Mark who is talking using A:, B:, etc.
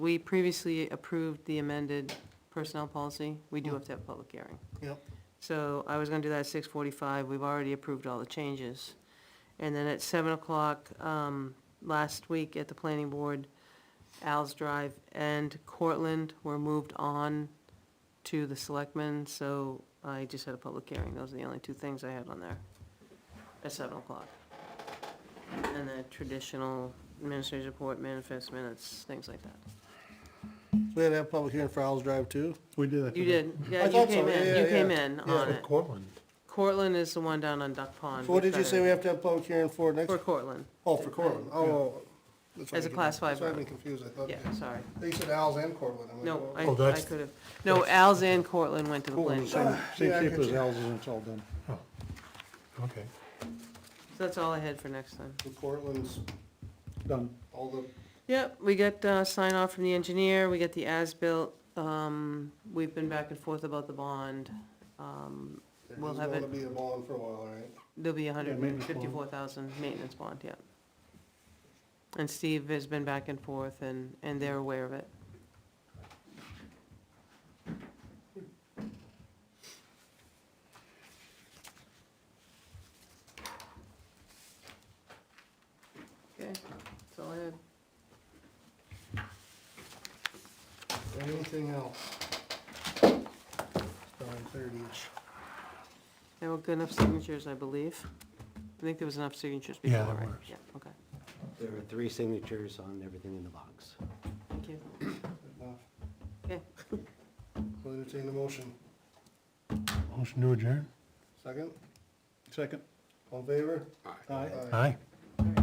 A: We previously approved the amended personnel policy. We do have to have a public hearing.
B: Yep.
A: So I was gonna do that at six forty-five, we've already approved all the changes. And then at seven o'clock, um, last week at the planning board, Al's Drive and Cortland were moved on to the selectmen, so I just had a public hearing, those are the only two things I had on there, at seven o'clock. And the traditional administrative report, manifest minutes, things like that.
B: We had to have a public hearing for Owls Drive too.
C: We did that.
A: You did, yeah,
B: I
A: you
B: thought
A: came
B: so,
A: in,
B: yeah,
A: you
B: yeah,
A: came
B: yeah.
A: in
B: Yeah.
A: on it.
C: Cortland.
A: Cortland is the one down on Duck Pond.
B: So what did you say we
A: have?
B: have to have a public hearing for next?
A: For Cortland,
B: Oh, for Cortland, oh. that's why
A: As a
B: I get-
A: class five
B: That's why I've
A: road.
B: been confused, I thought,
A: yeah, sorry.
B: they said Owls and Cortland. I'm like,
A: No,
B: well,
A: I,
C: Oh,
A: I
C: that's-
A: could have, no, Al's and Cortland went to the planning.
C: Same,
A: board.
C: same
B: Yeah, I
C: shape
B: get
C: as
B: you.
C: ours, and it's all done.
D: Okay.
A: So that's all I had for next time.
B: The Cortland's,
C: Done.
B: all the,
A: Yep, we got, uh, sign off from the engineer, we got the as-built, um, we've been back and forth about the bond. Um,
B: there's
A: We'll have
B: gonna
A: it.
B: be a bond for a while, all right?
A: there'll be a hundred and
C: maintenance bond.
A: fifty-four thousand maintenance bond, yeah. And Steve has been back and forth and, and they're aware of it. Okay, that's all I had.
B: Anything else? It's nine thirty-ish.
A: There were good enough signatures, I believe. I think there was enough signatures before,
D: Yeah,
A: right?
D: there was.
A: Yeah, okay,
E: There are three signatures on everything in the box.
A: thank you.
B: Enough.
A: Okay.
B: I'll entertain the motion.
D: Motion to adjourn?
B: Second,
C: Second?
B: all in favor?
C: Aye.
D: Aye.